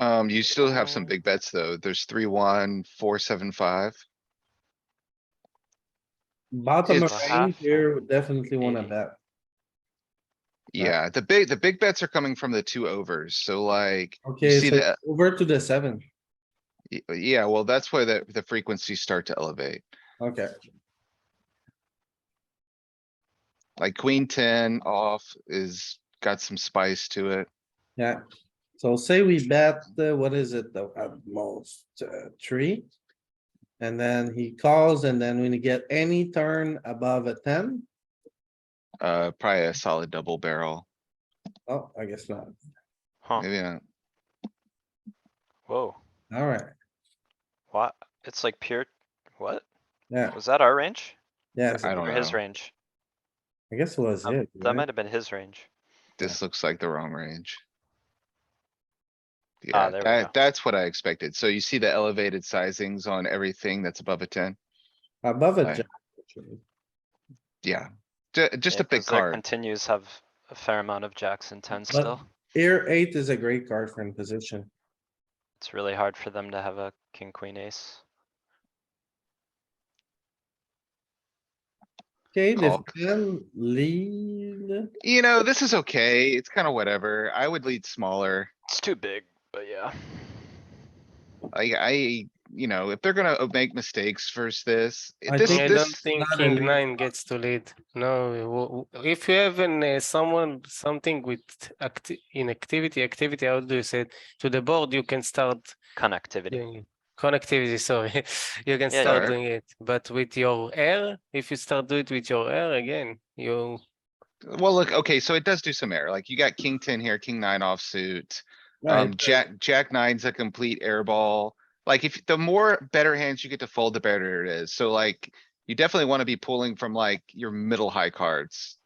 Um, you still have some Oh. big bets though. There's three, one, four, seven, five. Bottom of It's- range here, would definitely wanna Maybe. bet. Yeah. Yeah, the big, the big bets are coming from the two overs, so like, Okay, see so that- over to the seven. y- uh, yeah, well, that's where the, the frequencies start to elevate. Okay, Like queen ten off is, got some spice to it. yeah. So say we bet, the what is it, the at most, uh, three? And then he calls and then when you get any turn above a ten, Uh, probably a solid double barrel, oh, I guess not. Huh, maybe not. whoa, Alright, what? It's like pure, what? yeah, Was that our range? yeah, so I don't Or his know. range? I guess it was Um, it. That right? might have been his range. This looks like the wrong range. Ah, Yeah, there we go. that, that's what I expected. So you see the elevated sizings on everything that's above a ten? Above a Right. jack. actually. Yeah, ju- just Yeah, a big 'cause their card. Continues have a fair amount of jacks and tens But- still. Here, eight is a great card for in position. It's really hard for them to have a king, queen, ace. Okay, the Call. ten lead, You know, this is okay. It's kinda whatever. I would lead smaller. It's too big, but yeah. I, I, you know, if they're gonna uh, make mistakes versus this, I this, think- I don't this, think not a lead. king nine gets to lead. No, w- w- if you have an uh, someone something with acti- in activity, activity, how do you say it? To the board, you can start Connectivity. doing it. Connectivity, sorry, you can Yeah, start sure. doing it. But with your air, if you start do it with your air again, you well, look, okay, so it does do some error. Like you got king ten here, king nine offsuit. right? Um, jack, jack nine's a complete airball. Like if, the more better hands you get to fold, the better it is. So like, you definitely wanna be pulling from like your middle high cards.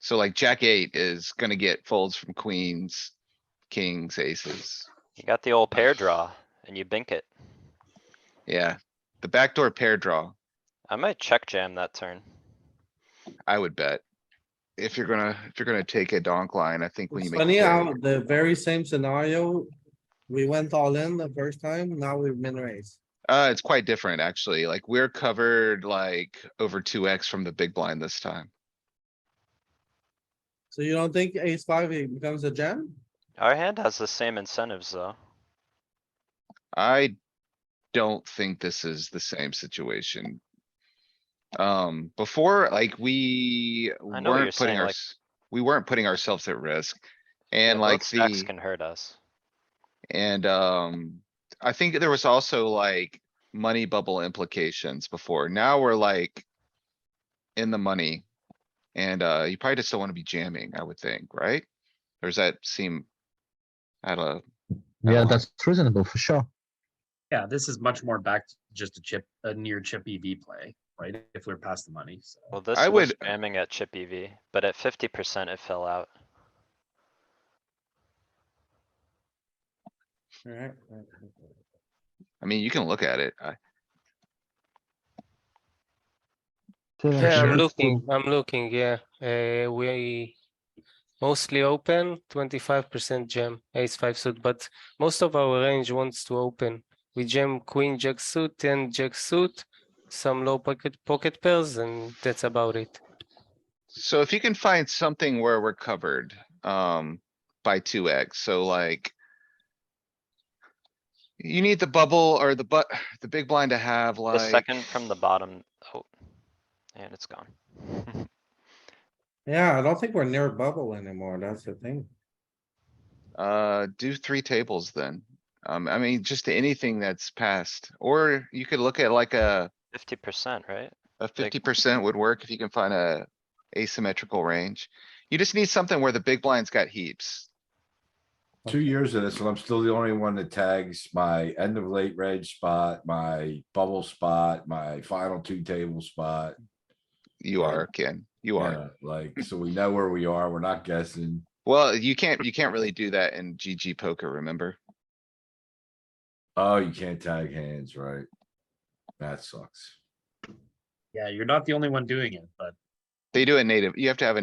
So like jack eight is gonna get folds from queens, kings, aces. You got the old pair draw and you bink it. Yeah, the backdoor pair draw. I might check jam that turn. I would bet. If you're gonna, if you're gonna take a donk line, I think when It's you make. funny a how pair- the very same scenario, we went all in the first time, now we've been raised. Uh, it's quite different, actually. Like, we're covered like over two X from the big blind this time. So you don't think ace five it becomes a jam? Our hand has the same incentives though. I don't think this is the same situation. Um, before, like, we what you're weren't putting saying, like- our, we weren't putting ourselves at risk. And both like stacks the, Can hurt us. and, um, I think there was also like money bubble implications before. Now we're like in the money. And, uh, you probably just don't wanna be jamming, I would think, right? Or does that seem? I don't know. Yeah, Uh, that's reasonable for sure. Yeah, this is much more back to just a chip, a near chip EV play, right? If we're past the money, so. Well, this I was would- jamming at chip EV, but at fifty percent it fell out. Alright. I mean, you can look at it. I- yeah, sure. I'm looking, I'm looking, yeah. Uh, we mostly open, twenty-five percent jam, ace five suit, but most of our range wants to open. We jam queen, jack suit, ten, jack suit, some low pocket pocket pairs, and that's about it. So if you can find something where we're covered, um, by two X, so like. You need the bubble or the but, the big blind to have The like. second from the bottom, oh, and it's gone. Yeah, I don't think we're near bubble anymore, that's the thing. Uh, do three tables then. Um, I mean, just anything that's passed, or you could look at like a, Fifty percent, right? a fifty percent would work if you can find a asymmetrical range. You just need something where the big blind's got heaps. Two years of this and I'm still the only one that tags my end of late red spot, my bubble spot, my final two table spot. You Right. are, Ken, you are. Yeah, Like, so we know where we are. We're not guessing. Well, you can't, you can't really do that in GG poker, remember? Oh, you can't tag hands, right? That sucks. Yeah, you're not the only one doing it, but They do it native. You have to have a